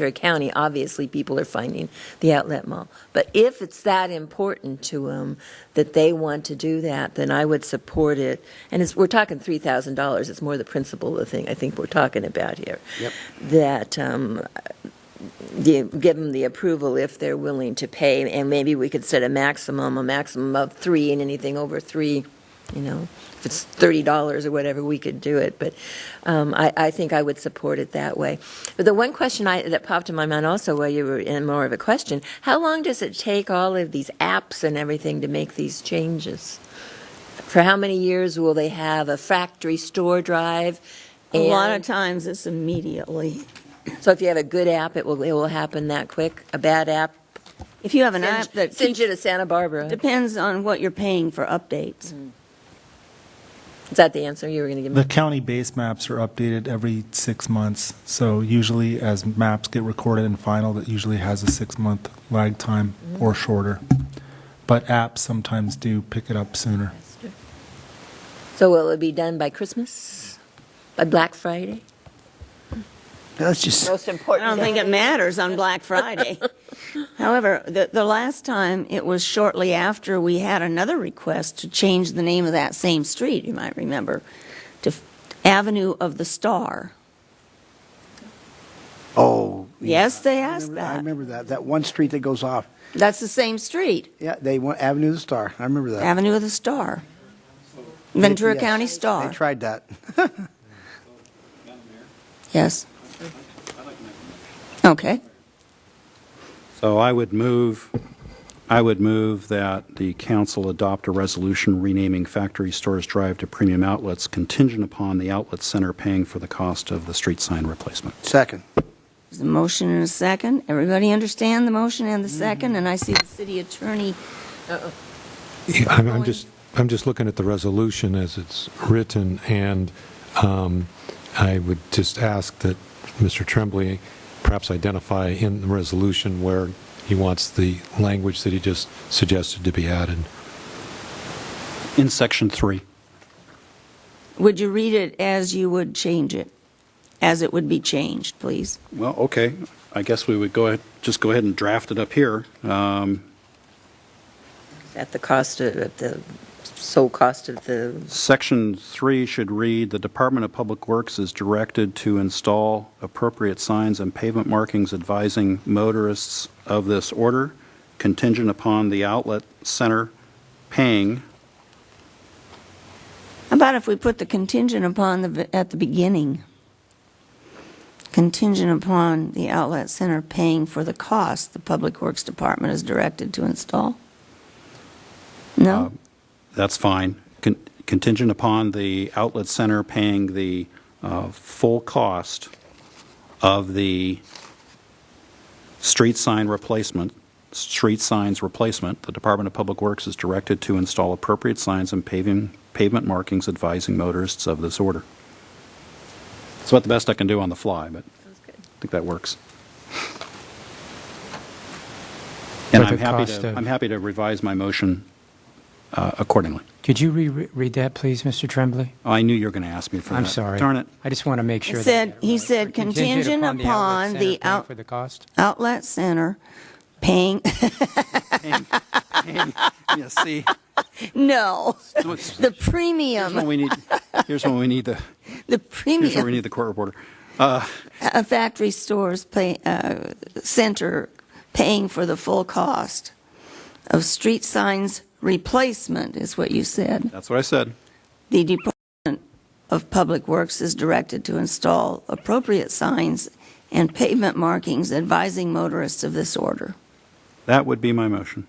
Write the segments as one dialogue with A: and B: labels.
A: Ventura County, obviously people are finding the outlet mall. But if it's that important to them that they want to do that, then I would support it. And it's, we're talking three thousand dollars. It's more the principle of the thing I think we're talking about here.
B: Yep.
A: That um, the, give them the approval if they're willing to pay, and maybe we could set a maximum, a maximum of three, and anything over three, you know, if it's thirty dollars or whatever, we could do it. But um, I, I think I would support it that way. But the one question I, that popped in my mind also while you were in more of a question, how long does it take all of these apps and everything to make these changes? For how many years will they have a factory store drive?
C: A lot of
A: and-
C: times it's immediately.
A: So if you have a good app, it will, it will happen that quick. A bad app,
C: If you have an
A: send,
C: app that
A: send you to
C: keeps-
A: Santa Barbara.
C: depends on what you're paying for updates.
A: Is that the answer you were going to give me?
D: The county base maps are updated every six months, so usually as maps get recorded and final, that usually has a six-month lag time or shorter. But apps sometimes do pick it up sooner.
A: So will it be done by Christmas? By Black Friday?
B: That's just,
E: Most
C: I don't
E: important
C: think
E: thing.
C: it matters on Black Friday. However, the, the last time, it was shortly after we had another request to change the name of that same street, you might remember, to Avenue of the Star.
B: oh.
C: Yes, they
B: I
C: asked
B: remember- I
C: that.
B: remember that, that one street that goes off.
C: That's the same street,
B: Yeah, they want Avenue of the Star. I remember that.
C: Avenue of the Star, Ventura
B: Yes.
C: County
B: They
C: Star.
B: tried that.
C: Yes. Okay.
F: So I would move, I would move that the council adopt a resolution renaming Factory Stores Drive to Premium Outlets contingent upon the outlet center paying for the cost of the street sign replacement.
B: Second.
C: There's a motion and a second. Everybody understand the motion and the second? And I see the city attorney
G: Yeah, I'm, I'm
C: Going-
G: just, I'm just looking at the resolution as it's written, and um, I would just ask that Mr. Tremblay perhaps identify in the resolution where he wants the language that he just suggested to be added.
F: In section three.
C: Would you read it as you would change it? As it would be changed, please?
F: Well, okay, I guess we would go ahead, just go ahead and draft it up here. Um,
A: At the cost of, at the sole cost of the,
F: Section three should read, "The Department of Public Works is directed to install appropriate signs and pavement markings advising motorists of this order, contingent upon the outlet center paying
C: How about if we put the contingent upon the, at the beginning? Contingent upon the outlet center paying for the cost the Public Works Department is directed to install? No?
F: That's fine. Con- Contingent upon the outlet center paying the uh, full cost of the street sign replacement, street signs replacement, the Department of Public Works is directed to install appropriate signs and paving, pavement markings advising motorists of this order. It's about the best I can do on the fly, but I think that works. And
H: But
F: I'm
H: the
F: happy
H: cost
F: to,
H: of-
F: I'm happy to revise my motion uh, accordingly.
H: Could you reread that, please, Mr. Tremblay?
F: I knew you were going to ask me for that.
H: I'm sorry.
F: Uh, Darn it.
H: I just want to make sure.
C: He
H: that-
C: said, he said contingent
H: the outlet
C: upon
H: center
C: the
H: paying
C: out,
H: For the cost?
C: outlet center paying,
F: Yeah, see,
C: no,
F: No, it's-
C: the
F: here's when
C: premium,
F: we need, here's when we need the,
C: the
F: here's when we
C: premium
F: need the court reporter.
C: a factory stores pay, uh, center paying for the full cost of street signs replacement is what you said.
F: That's what I said.
C: The Department of Public Works is directed to install appropriate signs and pavement markings advising motorists of this order.
F: That would be my motion.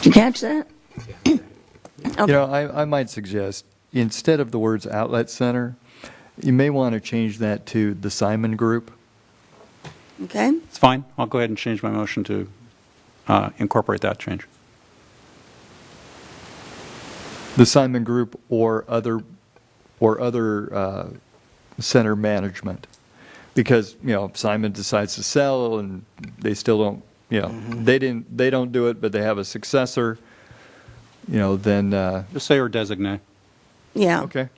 C: Did you catch that?
I: You know, I, I might suggest, instead of the words outlet center, you may want to change that to the Simon Group.
C: Okay?
F: It's fine. I'll go ahead and change my motion to uh, incorporate that change.
I: The Simon Group or other, or other uh, center management. Because, you know, if Simon decides to sell and they still don't, you know, they didn't, they don't do it, but they have a successor, you know, then, uh,
F: Just say or designate.
C: Yeah.
I: okay.